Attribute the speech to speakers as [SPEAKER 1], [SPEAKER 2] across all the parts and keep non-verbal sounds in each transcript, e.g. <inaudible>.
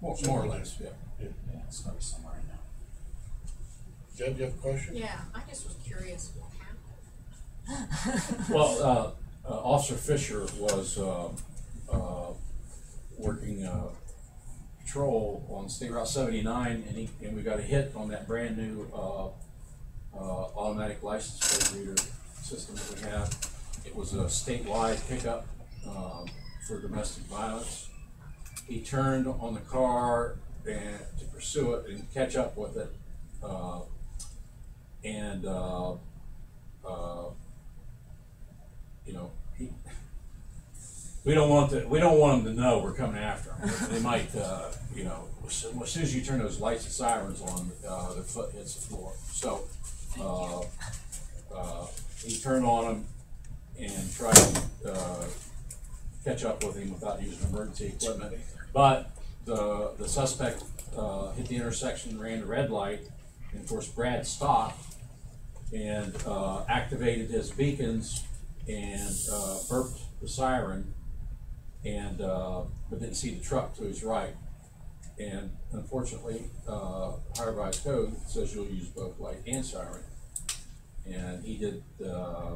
[SPEAKER 1] More, more or less, yeah.
[SPEAKER 2] Yeah, it's gotta be somewhere in there.
[SPEAKER 1] Deb, you have a question?
[SPEAKER 3] Yeah, I just was curious what happened.
[SPEAKER 4] Well, uh, uh, Officer Fisher was, um uh, working, uh, patrol on State Route seventy-nine, and he, and we got a hit on that brand-new, uh, uh, automatic license plate reader system that we have. It was a statewide pickup, um, for domestic violence. He turned on the car and, to pursue it and catch up with it, uh, and, uh, uh, you know, he, we don't want to, we don't want them to know we're coming after them. They might, uh, you know, as soon as soon as you turn those lights and sirens on, uh, their foot hits the floor. So, uh, uh, he turned on him and tried to, uh, catch up with him without using emergency equipment. But the, the suspect, uh, hit the intersection, ran the red light, and of course Brad stopped and uh, activated his beacons and uh, burped the siren and uh, but didn't see the truck to his right. And unfortunately, uh, higher by code says you'll use both light and siren. And he did uh,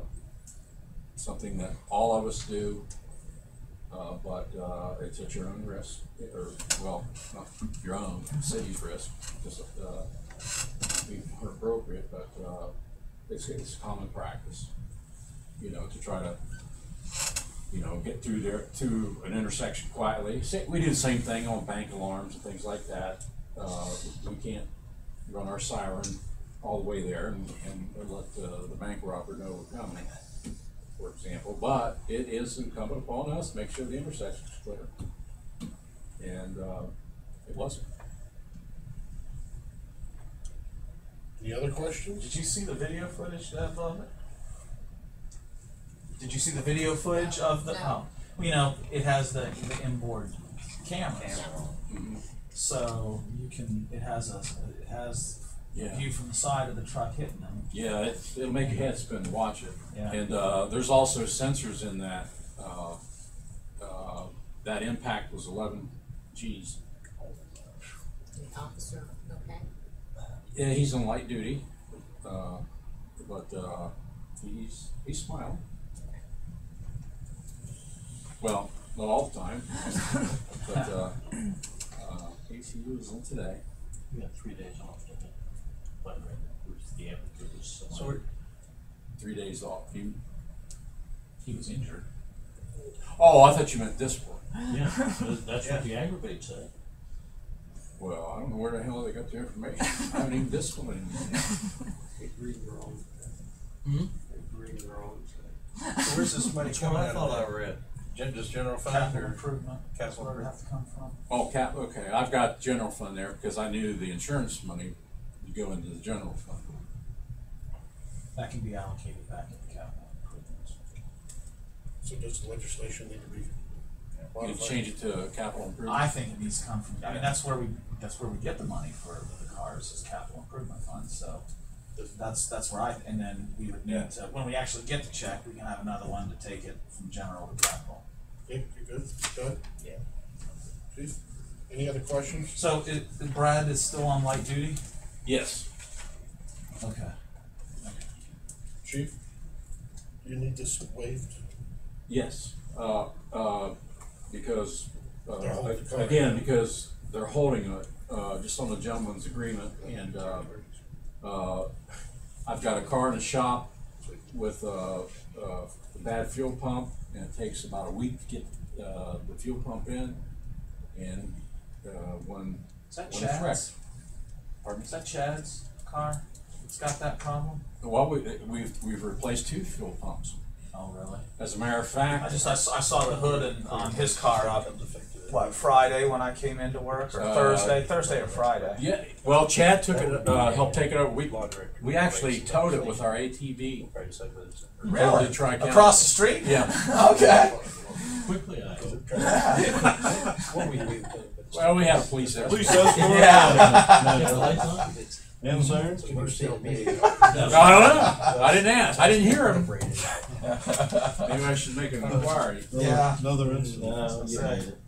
[SPEAKER 4] something that all of us do, uh, but uh, it's at your own risk, or well, not your own city's risk, just uh, be more appropriate, but, uh, it's, it's common practice, you know, to try to, you know, get through there, to an intersection quietly. Sa- We do the same thing on bank alarms and things like that. Uh, we can't run our siren all the way there and, and let the, the bank robber know we're coming, for example. But it is incumbent upon us to make sure the intersection's clear. And, uh, it wasn't.
[SPEAKER 1] Any other questions?
[SPEAKER 5] Did you see the video footage of um, Did you see the video footage of the?
[SPEAKER 3] No.
[SPEAKER 5] Oh, you know, it has the, the inboard cameras,
[SPEAKER 4] Mhm.
[SPEAKER 5] so you can. It has a. It has
[SPEAKER 4] Yeah.
[SPEAKER 5] a view from the side of the truck hitting them.
[SPEAKER 4] Yeah, it, it'll make your head spin to watch it.
[SPEAKER 5] Yeah.
[SPEAKER 4] And, uh, there's also sensors in that, uh, uh, that impact was eleven Gs.
[SPEAKER 3] The officer, okay?
[SPEAKER 4] Yeah, he's on light duty, uh, but, uh, he's, he's smiling. Well, not all the time, <laughs> but, uh, uh, ACU is in today.
[SPEAKER 2] We got three days off, didn't we? But, right, it was the applicant was somebody-
[SPEAKER 4] So we're three days off. He,
[SPEAKER 2] He was injured.
[SPEAKER 4] oh, I thought you meant this one.
[SPEAKER 2] Yeah, that's- that's what the aggravate said.
[SPEAKER 4] Well, I don't know where the hell they got the information. I haven't even disciplined him.
[SPEAKER 6] Agree we're on today.
[SPEAKER 4] Hmm?
[SPEAKER 6] Agree we're on today.
[SPEAKER 1] Where's this money
[SPEAKER 5] That's what I thought I
[SPEAKER 1] read. Gen, just general fund
[SPEAKER 5] Capital
[SPEAKER 1] or?
[SPEAKER 5] improvement. That's
[SPEAKER 1] Capital
[SPEAKER 5] where it would have to come from.
[SPEAKER 4] Oh, cap, okay, I've got general fund there because I knew the insurance money would go into the general fund.
[SPEAKER 5] That can be allocated back into capital improvements.
[SPEAKER 1] So does the legislation need to be?
[SPEAKER 4] You
[SPEAKER 1] modified?
[SPEAKER 4] change it to capital
[SPEAKER 5] I
[SPEAKER 4] improvement.
[SPEAKER 5] think it needs to come from. I mean, that's where we. That's where we get the money for the cars is capital improvement fund. So. That's, that's where I, and then we would need to, when we actually get the check, we can have another one to take it from general to capital.
[SPEAKER 1] Okay, you good, Doug?
[SPEAKER 5] Yeah.
[SPEAKER 1] Keith? Any other questions?
[SPEAKER 5] So it, Brad is still on light duty?
[SPEAKER 4] Yes.
[SPEAKER 5] Okay.
[SPEAKER 1] Chief? Do you need this waived?
[SPEAKER 4] Yes, uh, uh, because,
[SPEAKER 1] They're
[SPEAKER 4] uh,
[SPEAKER 1] holding the car.
[SPEAKER 4] again, because they're holding it, uh, just on the gentleman's agreement and, uh, uh, I've got a car in the shop with uh uh, a bad fuel pump, and it takes about a week to get, uh, the fuel pump in, and, uh, when,
[SPEAKER 5] Is that
[SPEAKER 4] when it's wrecked.
[SPEAKER 5] Chad's?
[SPEAKER 4] Pardon?
[SPEAKER 5] Is that Chad's car? It's got that problem?
[SPEAKER 4] Well, we, we've, we've replaced two fuel pumps.
[SPEAKER 5] Oh, really?
[SPEAKER 4] As a matter of
[SPEAKER 5] I
[SPEAKER 4] fact,
[SPEAKER 5] just, I saw, I saw the hood and, on his car up, what, Friday when I came into work, or
[SPEAKER 4] Uh,
[SPEAKER 5] Thursday, Thursday or Friday?
[SPEAKER 4] yeah, well, Chad took it, uh, helped take it over, we,
[SPEAKER 2] Laundry.
[SPEAKER 4] we actually towed it
[SPEAKER 2] <laughs>
[SPEAKER 4] with our ATV.
[SPEAKER 2] Right, so it's-
[SPEAKER 4] Really? Tri-County.
[SPEAKER 5] Across the street?
[SPEAKER 4] Yeah,
[SPEAKER 5] <laughs> Okay.
[SPEAKER 2] Quickly, I.
[SPEAKER 6] What we do, but it's-
[SPEAKER 4] well, we had a
[SPEAKER 2] <laughs>
[SPEAKER 4] police there.
[SPEAKER 2] No, <laughs> no, lights on? No sirens?
[SPEAKER 6] it's commercial meeting.
[SPEAKER 4] I don't
[SPEAKER 5] <laughs>
[SPEAKER 4] know, I didn't ask, I didn't hear <laughs> him. Maybe I should make an inquiry.
[SPEAKER 5] Yeah.
[SPEAKER 2] Another incident.
[SPEAKER 5] That's what I said.